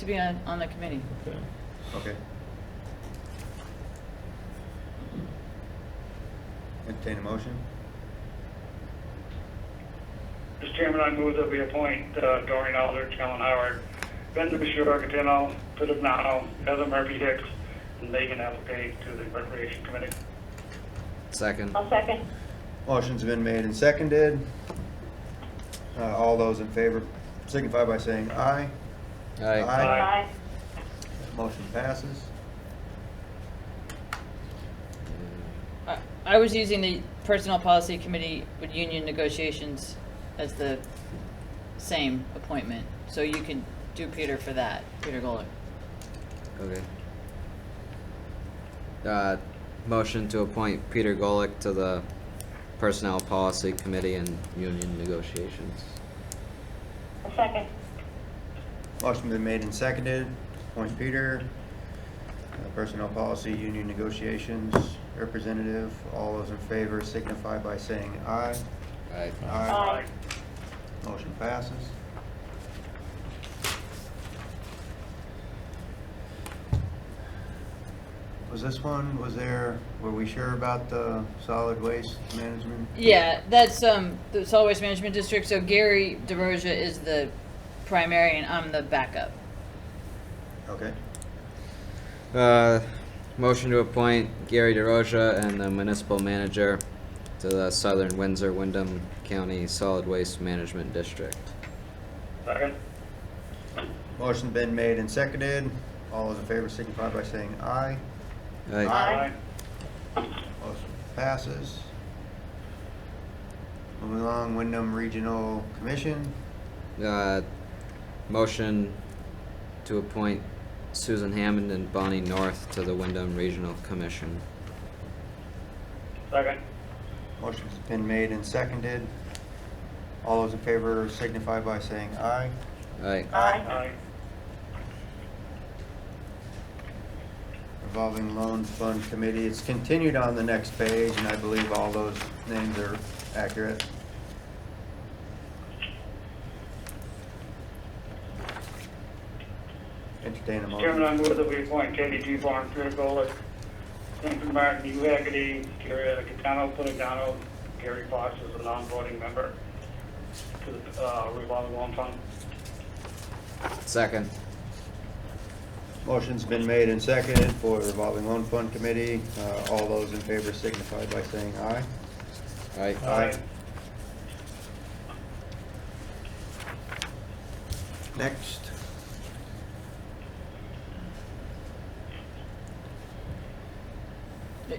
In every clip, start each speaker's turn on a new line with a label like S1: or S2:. S1: to be on, on the committee.
S2: Okay.
S3: Okay. Entertain a motion?
S4: Mr. Chairman, I move that we appoint uh, Doreen Aldrich, Helen Howard, Ben Bishop-Argentino, Philip Nahal, Heather Murphy Hicks, and Megan Applegate to the Recreation Committee.
S5: Second.
S6: I'll second.
S3: Motion's been made and seconded. Uh, all those in favor signify by saying aye.
S5: Aye.
S3: Aye.
S6: Aye.
S3: Motion passes.
S1: I, I was using the Personnel Policy Committee with union negotiations as the same appointment, so you could do Peter for that, Peter Goller.
S5: Okay. Uh, motion to appoint Peter Golick to the Personnel Policy Committee and Union Negotiations.
S6: I'll second.
S3: Motion been made and seconded. Point Peter, uh, Personnel Policy, Union Negotiations Representative. All those in favor signify by saying aye.
S5: Aye.
S6: Aye.
S3: Motion passes. Was this one, was there, were we sure about the solid waste management?
S1: Yeah, that's, um, the Solid Waste Management District, so Gary DeRosa is the primary and I'm the backup.
S3: Okay.
S5: Uh, motion to appoint Gary DeRosa and the Municipal Manager to the Southern Windsor Wyndham County Solid Waste Management District.
S4: Second?
S3: Motion been made and seconded. All those in favor signify by saying aye.
S5: Aye.
S6: Aye.
S3: Motion passes. Moving along, Wyndham Regional Commission.
S5: Uh, motion to appoint Susan Hammond and Bonnie North to the Wyndham Regional Commission.
S4: Second?
S3: Motion's been made and seconded. All those in favor signify by saying aye.
S5: Aye.
S6: Aye.
S4: Aye.
S3: Revolving Loan Fund Committee, it's continued on the next page, and I believe all those names are accurate. Entertain a
S4: Mr. Chairman, I
S3: motion.
S4: move that we appoint Katie G. Barnes, Peter Golick, Lincoln Martin, Hugh Hagerty, Gary Catano, Polidano, Gary Fox as a non-voting member to the uh, revolving loan fund.
S5: Second.
S3: Motion's been made and seconded for Revolving Loan Fund Committee. Uh, All those in favor signify by saying aye.
S5: Aye.
S4: Uh,
S3: Aye. Next.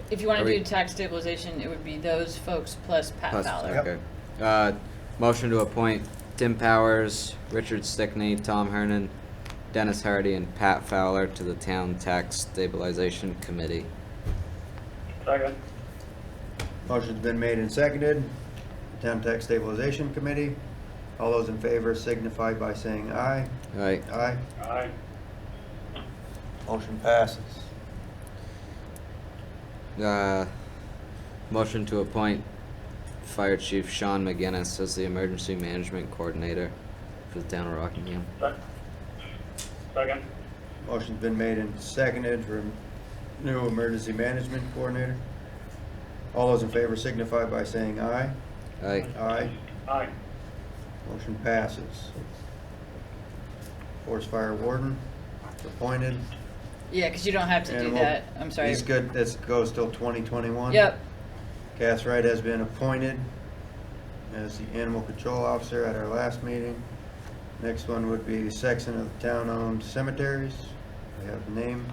S1: If you wanna
S5: Are we-
S1: do tax stabilization, it would be those folks plus Pat
S5: Plus-
S1: Fowler.
S5: okay. Uh, motion to appoint Tim Powers, Richard Stickney, Tom Hernan, Dennis Hardy, and Pat Fowler to the Town Tax Stabilization Committee.
S4: Second?
S3: Motion's been made and seconded. Town Tax Stabilization Committee. All those in favor signify by saying aye.
S5: Aye.
S3: Aye.
S4: Aye.
S3: Motion passes.
S5: Uh, motion to appoint Fire Chief Sean McGinnis as the Emergency Management Coordinator for the Town of Rockingham.
S4: Sec- Second?
S3: Motion's been made and seconded for new emergency management coordinator. All those in favor signify by saying aye.
S5: Aye.
S3: Aye.
S4: Aye.
S3: Motion passes. Forest Fire Warden, appointed.
S1: Yeah, cause you don't have to
S3: And
S1: do
S3: we'll-
S1: that, I'm sorry.
S3: He's good, this goes till 2021.
S1: Yep,
S3: Cass Wright has been appointed as the animal control officer at our last meeting. Next one would be section of the town-owned cemeteries. We have the name.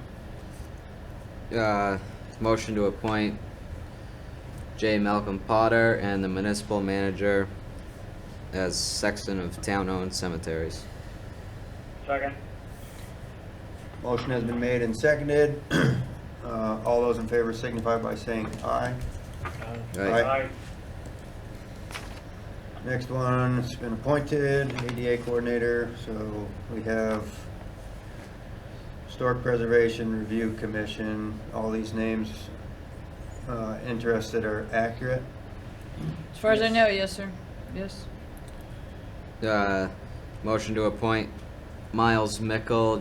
S5: Uh, motion to appoint J. Malcolm Potter and the municipal manager as sexton of town-owned cemeteries.
S4: Second?
S3: Motion has been made and seconded. Uh, All those in favor signify by saying aye. Aye.
S4: Aye.
S3: Next one, it's been appointed, ADA coordinator, so we have Historic Preservation Review Commission. All these names uh, interested are accurate.
S1: as far as I know, yes, sir, yes.
S5: Uh, motion to appoint Miles Mickel,